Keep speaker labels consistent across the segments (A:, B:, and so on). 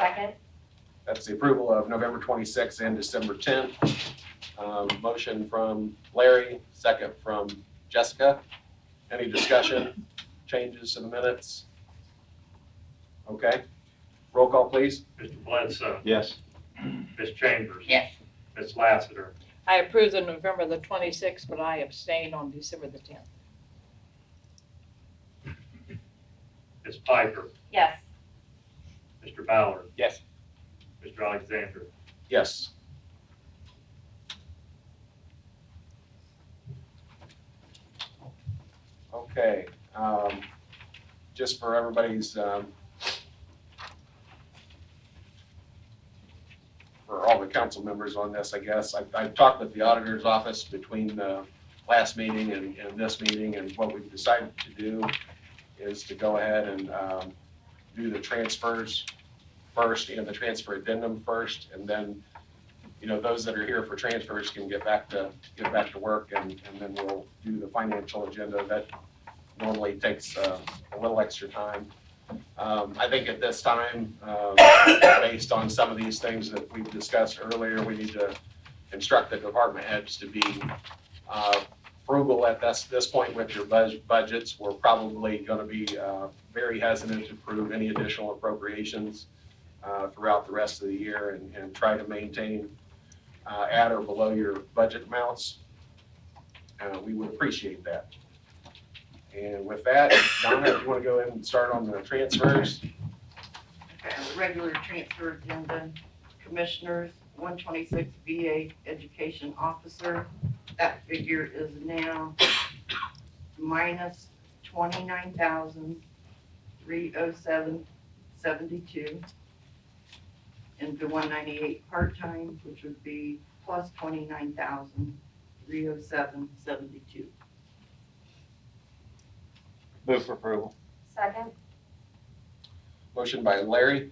A: Second,
B: That's the approval of November 26th and December 10th. Um, Motion from Larry, second from Jessica. Any discussion, changes to the minutes? Okay, roll call, please.
C: Mr. Bledsoe,
D: Yes.
C: Ms. Chambers,
A: yes.
C: Ms. Lassiter,
E: I approved on November the 26th, but I abstained on December the 10th.
C: Ms. Piper,
A: Yes.
C: Mr. Ballard,
D: Yes.
C: Mr. Alexander.
B: Yes. Okay, um, just for everybody's, um, for all the council members on this, I guess, I've, I've talked with the auditor's office between the last meeting and, and this meeting, and what we've decided to do is to go ahead and, um, do the transfers first and the transfer addendum first, and then, you know, those that are here for transfers can get back to, get back to work, and, and then we'll do the financial agenda. That normally takes uh, a little extra time. Um, I think at this time, um, based on some of these things that we've discussed earlier, we need to instruct the department heads to be uh, frugal at this, this point with your bud- budgets. We're probably gonna be uh, very hesitant to approve any additional appropriations uh, throughout the rest of the year and, and try to maintain uh, at or below your budget amounts. Uh, We would appreciate that. And with that, Donna, if you want to go ahead and start on the transfers,
F: uh, regular transfer agenda, commissioners, one twenty-six VA education officer. That figure is now minus twenty-nine thousand, three oh seven, seventy-two. And the one ninety-eight part-time, which would be plus twenty-nine thousand, three oh seven, seventy-two.
D: Move for approval.
A: Second,
B: motion by Larry,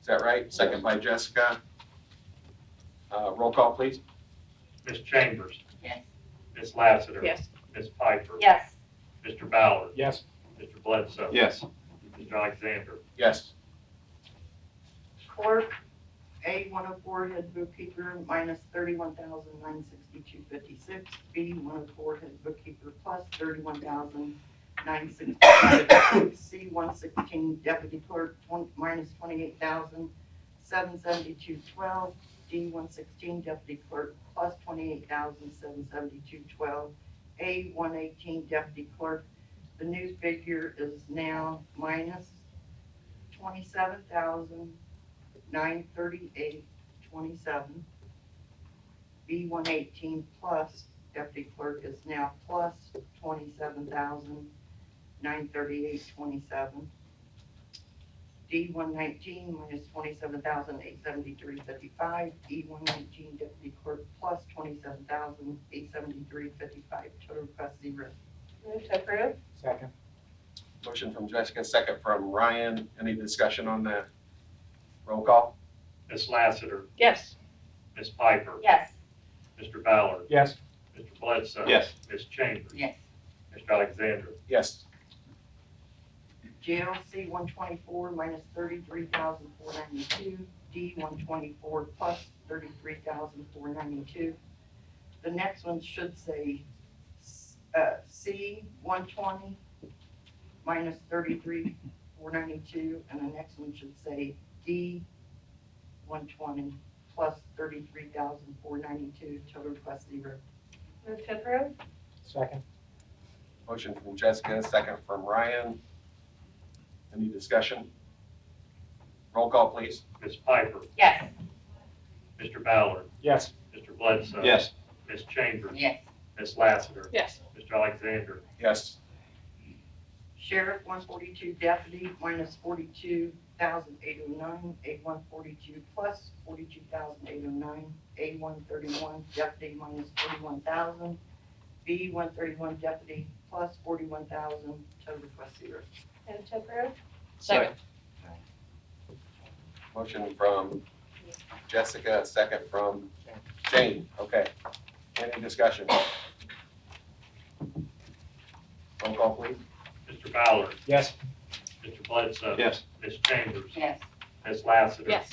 B: is that right? Second by Jessica. Uh, Roll call, please.
C: Ms. Chambers,
A: yes.
C: Ms. Lassiter.
E: Yes,
C: Ms. Piper.
A: Yes.
C: Mr. Ballard,
D: Yes.
C: Mr. Bledsoe.
D: Yes.
C: Mr. Alexander,
B: Yes,
F: Clerk, A one oh four head bookkeeper minus thirty-one thousand nine sixty-two fifty-six. B one oh four head bookkeeper plus thirty-one thousand nine sixty-five. C one sixteen deputy clerk twen- minus twenty-eight thousand seven seventy-two twelve. D one sixteen deputy clerk plus twenty-eight thousand seven seventy-two twelve. A one eighteen deputy clerk, the new figure is now minus twenty-seven thousand nine thirty-eight twenty-seven. B one eighteen plus deputy clerk is now plus twenty-seven thousand nine thirty-eight twenty-seven. D one nineteen minus twenty-seven thousand eight seventy-three fifty-five, E one nineteen deputy clerk plus twenty-seven thousand eight seventy-three fifty-five, total request zero.
A: Move to approve?
D: Second.
B: motion from Jessica, second from Ryan. Any discussion on that? Roll call?
C: Ms. Lassiter,
E: yes,
C: Ms. Piper.
A: Yes.
C: Mr. Ballard,
D: Yes.
C: Mr. Bledsoe.
D: Yes.
C: Ms. Chambers,
F: Yes.
C: Mr. Alexander,
B: Yes,
F: GLC one twenty-four minus thirty-three thousand four ninety-two, D one twenty-four plus thirty-three thousand four ninety-two. The next one should say, uh, C one twenty minus thirty-three four ninety-two, and the next one should say D one twenty plus thirty-three thousand four ninety-two, total request zero.
A: Move to approve?
D: Second.
B: motion from Jessica, second from Ryan. Any discussion? Roll call, please.
C: Ms. Piper,
A: Yes.
C: Mr. Ballard,
D: Yes.
C: Mr. Bledsoe.
D: Yes.
C: Ms. Chambers,
F: Yes.
C: Ms. Lassiter,
E: yes,
C: Mr. Alexander,
B: Yes,
F: Sheriff, one forty-two deputy, minus forty-two thousand eight oh nine, A one forty-two plus forty-two thousand eight oh nine, A one thirty-one deputy minus forty-one thousand, B one thirty-one deputy plus forty-one thousand, total request zero.
A: Move to approve?
E: second,
B: motion from Jessica, second from Jane, okay. Any discussion? Roll call, please.
C: Mr. Ballard,
D: Yes.
C: Mr. Bledsoe.
D: Yes.
C: Ms. Chambers,
F: Yes.
G: Ms. Lassiter.
C: Yes.